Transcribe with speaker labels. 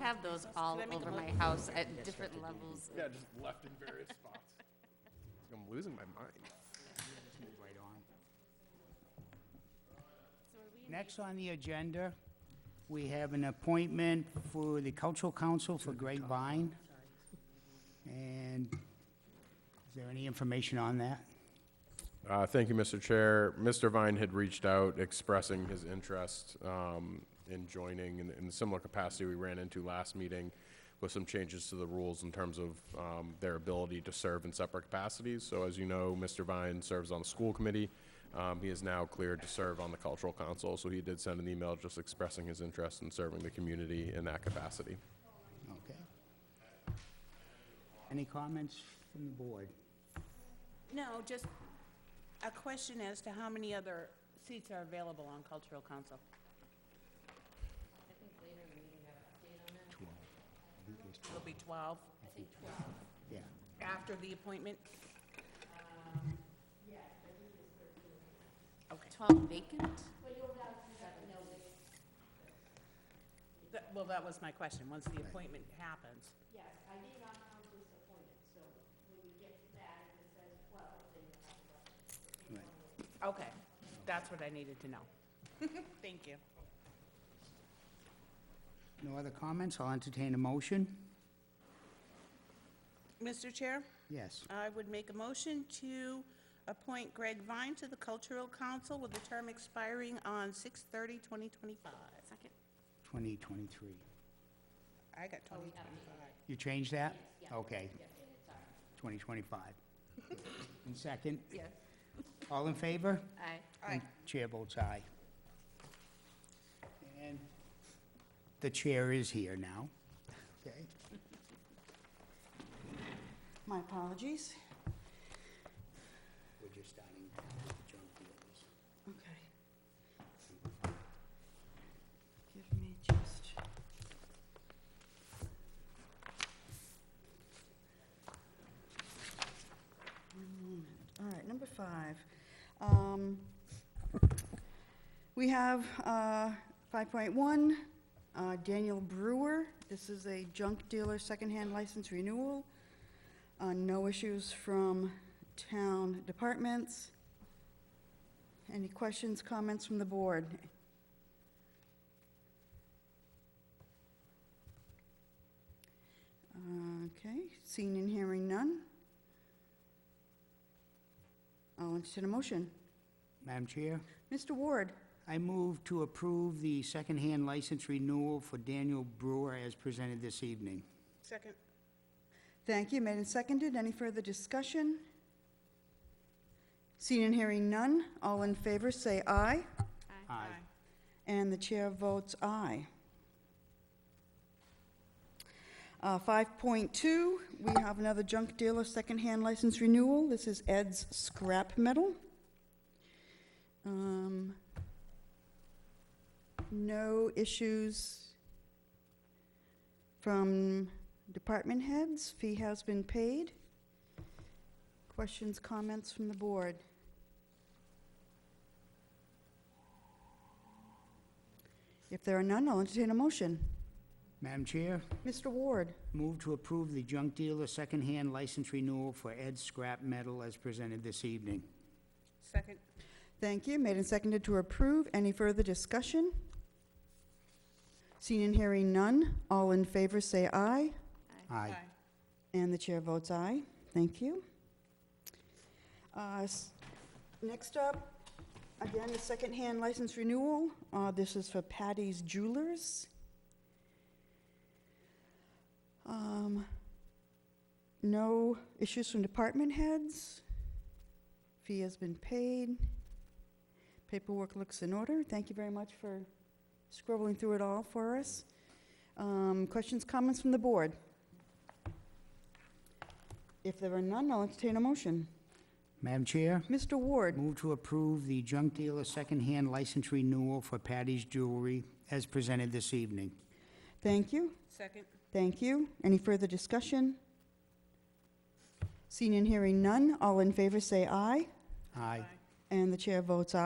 Speaker 1: have those all
Speaker 2: I make
Speaker 1: over
Speaker 2: a
Speaker 1: my house at different levels.
Speaker 3: Yeah, just left in various spots. I'm losing my mind.
Speaker 4: Move right on. Next on the agenda, we have an appointment for the Cultural Council for Grapevine. And is there any information on that?
Speaker 3: Uh, Thank you, Mr. Chair. Mr. Vine had reached out expressing his interest um, in joining in- in the similar capacity we ran into last meeting with some changes to the rules in terms of um, their ability to serve in separate capacities. So as you know, Mr. Vine serves on the school committee. Um, He is now cleared to serve on the cultural council. So he did send an email just expressing his interest in serving the community in that capacity.
Speaker 4: Okay. Any comments from the board?
Speaker 2: No, just a question as to how many other seats are available on cultural council. It'll be twelve
Speaker 4: Yeah,
Speaker 2: after the appointment?
Speaker 1: Um,
Speaker 2: Okay,
Speaker 1: Twelve vacant?
Speaker 2: That- well, that was my question, once the appointment happens.
Speaker 4: right.
Speaker 2: Okay, that's what I needed to know. Thank you.
Speaker 4: No other comments? I'll entertain a motion.
Speaker 2: Mr. Chair?
Speaker 4: Yes.
Speaker 2: I would make a motion to appoint Greg Vine to the Cultural Council with a term expiring on 6 2025
Speaker 1: Second.
Speaker 4: 2023.
Speaker 2: I got 2025.
Speaker 4: You changed that? Okay. 2025. And second?
Speaker 1: Yes.
Speaker 4: All in favor?
Speaker 1: Aye.
Speaker 2: Aye.
Speaker 4: And Chair votes aye. And the chair is here now. Okay.
Speaker 5: My apologies.
Speaker 4: We're just starting to jump the others.
Speaker 5: Okay. Give me just. One moment. All right, number five. Um, We have uh, 5.1, uh, Daniel Brewer. This is a junk dealer secondhand license renewal. Uh, No issues from town departments. Any questions, comments from the board? Okay, seeing and hearing none. I'll entertain a motion.
Speaker 4: Madam Chair,
Speaker 5: Mr. Ward,
Speaker 4: I move to approve the secondhand license renewal for Daniel Brewer as presented this evening.
Speaker 2: Second.
Speaker 5: thank you, made and seconded. Any further discussion? Seeing and hearing none, all in favor, say aye.
Speaker 4: Aye.
Speaker 5: And the chair votes aye. Uh, 5.2, we have another junk dealer secondhand license renewal. This is Ed's Scrap Metal. Um, No issues from department heads. Fee has been paid. Questions, comments from the board? If there are none, I'll entertain a motion.
Speaker 4: Madam Chair,
Speaker 5: Mr. Ward?
Speaker 4: move to approve the junk dealer secondhand license renewal for Ed Scrap Metal as presented this evening.
Speaker 2: Second.
Speaker 5: Thank you. Made and seconded to approve. Any further discussion? Seeing and hearing none, all in favor say aye.
Speaker 4: Aye.
Speaker 5: And the chair votes aye. Thank you. Uh, s- Next up, again, a secondhand license renewal. Uh, This is for Patty's Jewelers. Um, No issues from department heads. Fee has been paid. Paperwork looks in order. Thank you very much for scrubbing through it all for us. Um, Questions, comments from the board? If there are none, I'll entertain a motion.
Speaker 4: Madam Chair,
Speaker 5: Mr. Ward,
Speaker 4: move to approve the junk dealer secondhand license renewal for Patty's Jewelry as presented this evening.
Speaker 5: thank you,
Speaker 2: Second.
Speaker 5: thank you. Any further discussion? Seeing and hearing none, all in favor say aye,
Speaker 4: Aye.
Speaker 5: and the chair votes aye.